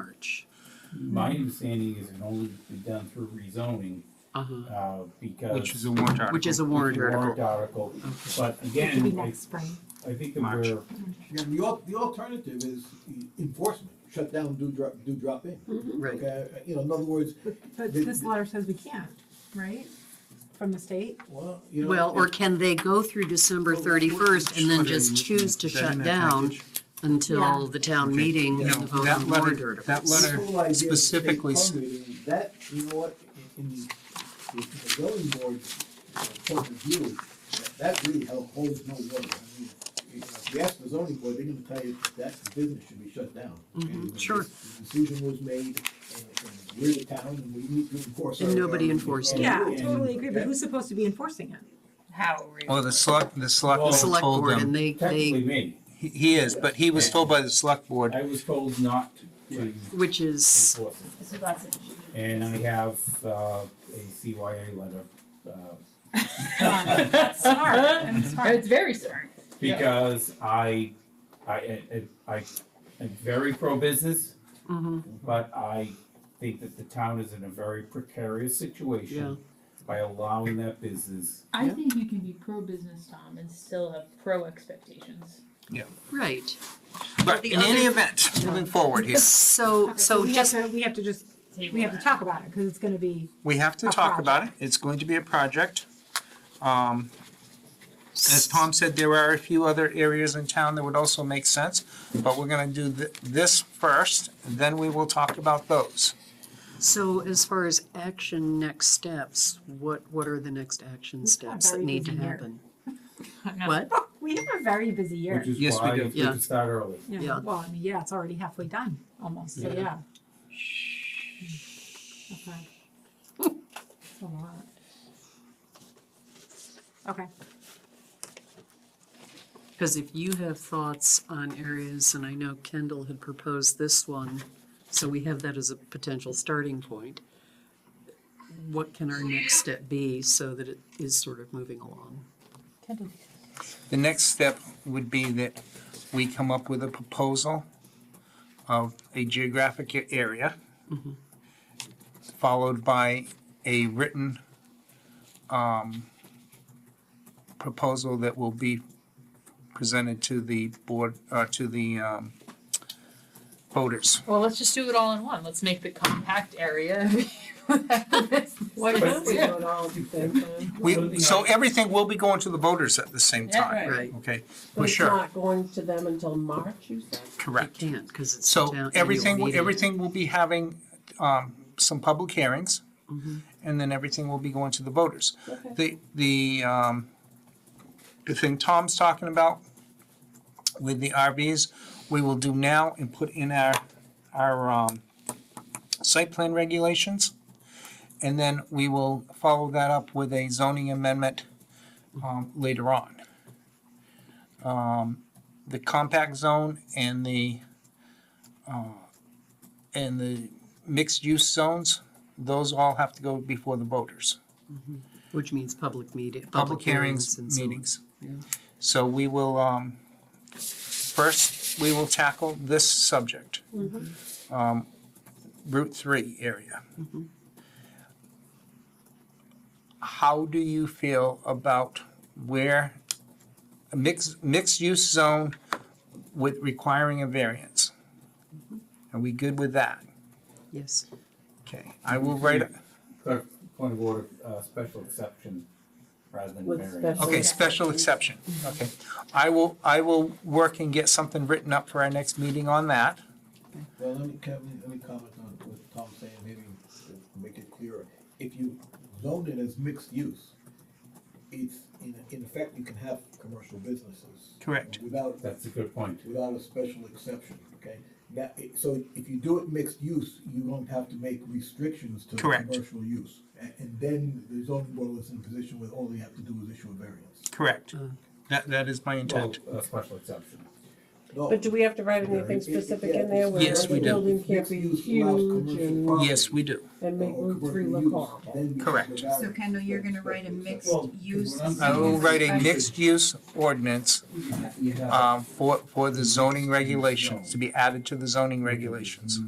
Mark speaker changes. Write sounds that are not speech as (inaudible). Speaker 1: March.
Speaker 2: My understanding is it only be done through rezoning,
Speaker 1: Uh-huh.
Speaker 2: uh, because.
Speaker 3: Which is a warrant article.
Speaker 1: Which is a warrant
Speaker 2: Warrant
Speaker 1: article.
Speaker 2: article,
Speaker 1: Okay.
Speaker 2: but
Speaker 4: It could be
Speaker 2: again, I,
Speaker 4: next spring.
Speaker 2: I think that
Speaker 3: March.
Speaker 2: we're,
Speaker 5: Yeah, the al- the alternative is enforcement, shut down, do drop, do drop in.
Speaker 1: Mm-hmm. Right.
Speaker 5: Okay, uh, you know, in other words,
Speaker 4: But
Speaker 5: The-
Speaker 4: this letter says we can't, right? From the state?
Speaker 5: well, you know.
Speaker 1: Well, or
Speaker 5: if-
Speaker 1: can they go through December thirty-first and then just choose to shut down until
Speaker 4: Yeah.
Speaker 1: the town meeting and
Speaker 3: No,
Speaker 1: the vote
Speaker 3: that
Speaker 1: on
Speaker 3: letter-
Speaker 1: warrant articles?
Speaker 3: that
Speaker 5: this
Speaker 3: letter
Speaker 5: whole idea of state
Speaker 3: specifically s-
Speaker 5: permitting, That, you know what, in, in the the zoning board's uh, point of view, that- that really held, holds no water. I mean, you know, If you ask the zoning board, they're gonna tell you that business should be shut down. And
Speaker 1: Mm-hmm. sure.
Speaker 5: the Decision was made, and, and we're the town, and we need to enforce our.
Speaker 1: And nobody
Speaker 5: our-
Speaker 2: Oh,
Speaker 1: enforced it.
Speaker 5: our
Speaker 4: Yeah, I
Speaker 5: rules.
Speaker 4: totally agree, but who's supposed to be
Speaker 6: (laughs)
Speaker 4: enforcing it?
Speaker 6: How are we?
Speaker 3: Well, the select, the
Speaker 2: Well,
Speaker 1: The
Speaker 3: selectman
Speaker 1: select
Speaker 3: told
Speaker 1: board and
Speaker 3: them,
Speaker 1: they,
Speaker 2: technically
Speaker 1: they,
Speaker 2: me,
Speaker 3: he he is, but he was told by the select board,
Speaker 2: I was told not to
Speaker 1: which is,
Speaker 2: enforce it.
Speaker 6: This is lots of issues.
Speaker 2: And
Speaker 6: (laughs)
Speaker 2: I have, uh, a CYA letter, uh,
Speaker 6: Smart, I'm smart. It's very smart.
Speaker 2: because I, I, I, I, I'm very pro-business,
Speaker 1: mhm,
Speaker 2: but I think that the town is in a very precarious
Speaker 1: Yeah.
Speaker 2: situation by allowing that business.
Speaker 6: I
Speaker 1: Yeah.
Speaker 6: think you can be pro-business, Tom, and still have pro-expectations.
Speaker 1: right.
Speaker 3: but
Speaker 1: the
Speaker 3: in any
Speaker 1: other- (laughs)
Speaker 3: event, moving forward here,
Speaker 1: So,
Speaker 4: Okay,
Speaker 1: so
Speaker 4: we have
Speaker 1: just,
Speaker 4: to- We have to just, we have to talk about it, because it's gonna be,
Speaker 3: we have to
Speaker 4: A
Speaker 3: talk about it, it's going to be a project. Um, As
Speaker 1: s-
Speaker 3: Tom said, there are a few other areas in town that would also make sense, but we're gonna do th- this first, then we will talk about those.
Speaker 1: so as far as action next steps, what, what are the next action
Speaker 4: We've got a
Speaker 1: steps that
Speaker 4: very
Speaker 1: need to
Speaker 4: busy year. (laughs)
Speaker 1: happen? What?
Speaker 4: we have a very busy year.
Speaker 2: Which is
Speaker 3: Yes, we
Speaker 2: why
Speaker 3: do.
Speaker 2: if we
Speaker 1: Yeah.
Speaker 2: could start early.
Speaker 1: Yeah.
Speaker 4: Well, I mean, yeah, it's already halfway done, almost, so
Speaker 2: Yeah.
Speaker 4: yeah. (laughs) Okay. It's a lot. Okay,
Speaker 1: Because if you have thoughts on areas, and I know Kendall had proposed this one, so we have that as a potential starting point. What can our next step be so that it is sort of moving along?
Speaker 3: The next step would be that we come up with a proposal of a geographic a- area, followed by a written um, proposal that will be presented to the board, uh, to the um, voters.
Speaker 6: Well, let's just do it all in one. Let's make the compact
Speaker 4: (laughs)
Speaker 6: area. (laughs) What
Speaker 2: if we
Speaker 6: Yeah,
Speaker 7: uh,
Speaker 3: We, so everything will be going to the voters at the same
Speaker 6: Yeah,
Speaker 3: time,
Speaker 6: right.
Speaker 1: Right,
Speaker 3: okay?
Speaker 7: But
Speaker 3: For
Speaker 7: it's
Speaker 3: sure,
Speaker 7: not going to them until March, you said?
Speaker 1: I
Speaker 3: correct.
Speaker 1: can't, because it's. the town
Speaker 3: So
Speaker 1: annual
Speaker 3: everything,
Speaker 1: meeting.
Speaker 3: everything will be having um, some public hearings,
Speaker 1: Mhm.
Speaker 3: and then everything will be going to the voters.
Speaker 7: Okay.
Speaker 3: The, the, um, the thing Tom's talking about with the RVs, we will do now and put in our, our um, site plan regulations. And then we will follow that up with a zoning amendment um, later on. Um, The compact zone and the uh, and the mixed-use zones, those all have to go before the voters.
Speaker 1: Which means public meeting.
Speaker 3: Public hearings,
Speaker 1: and so on.
Speaker 3: meetings.
Speaker 1: yeah.
Speaker 3: So we will, um, first, we will tackle this subject.
Speaker 1: Mm-hmm.
Speaker 3: Um, Route three area. How do you feel about where a mixed, mixed-use zone with requiring a variance?
Speaker 1: Mm-hmm.
Speaker 3: Are we good with that?
Speaker 1: Yes,
Speaker 3: Okay, I will
Speaker 1: Mm-hmm.
Speaker 3: write, a-
Speaker 2: Clerk, Point of order, uh, special exception rather than
Speaker 7: With
Speaker 2: variance.
Speaker 7: special-
Speaker 3: Okay,
Speaker 7: Yeah.
Speaker 3: special exception, okay. I will, I will work and get something written up for our next meeting on that.
Speaker 5: Well, let me, can, let me comment on what Tom's saying, maybe to make it clearer. If you zone it as mixed use, it's, in, in effect, you can have commercial businesses.
Speaker 3: Correct.
Speaker 5: Without,
Speaker 2: That's a good point.
Speaker 5: without a special exception, okay? That, it- so if you do it mixed use, you don't have to make restrictions to
Speaker 3: Correct.
Speaker 5: commercial use. And, and then the zoning board is in a position where all they have to do is issue a variance.
Speaker 3: Correct. That, that is my
Speaker 2: Well,
Speaker 3: intent.
Speaker 2: a special exception.
Speaker 5: No.
Speaker 7: But do we have to write anything specific in there where
Speaker 3: Yes, we
Speaker 7: the
Speaker 3: do.
Speaker 7: building can't be huge and,
Speaker 3: Yes, we do.
Speaker 7: and
Speaker 5: uh,
Speaker 7: make Route Three look horrible?
Speaker 3: Correct.
Speaker 8: So Kendall, you're gonna write a mixed
Speaker 2: Well,
Speaker 8: use.
Speaker 2: when I'm-
Speaker 3: I will write a
Speaker 8: special-
Speaker 3: mixed-use ordinance
Speaker 2: Yeah.
Speaker 8: Mm-hmm.
Speaker 3: um, for, for the zoning regulations, to be added to the zoning regulations.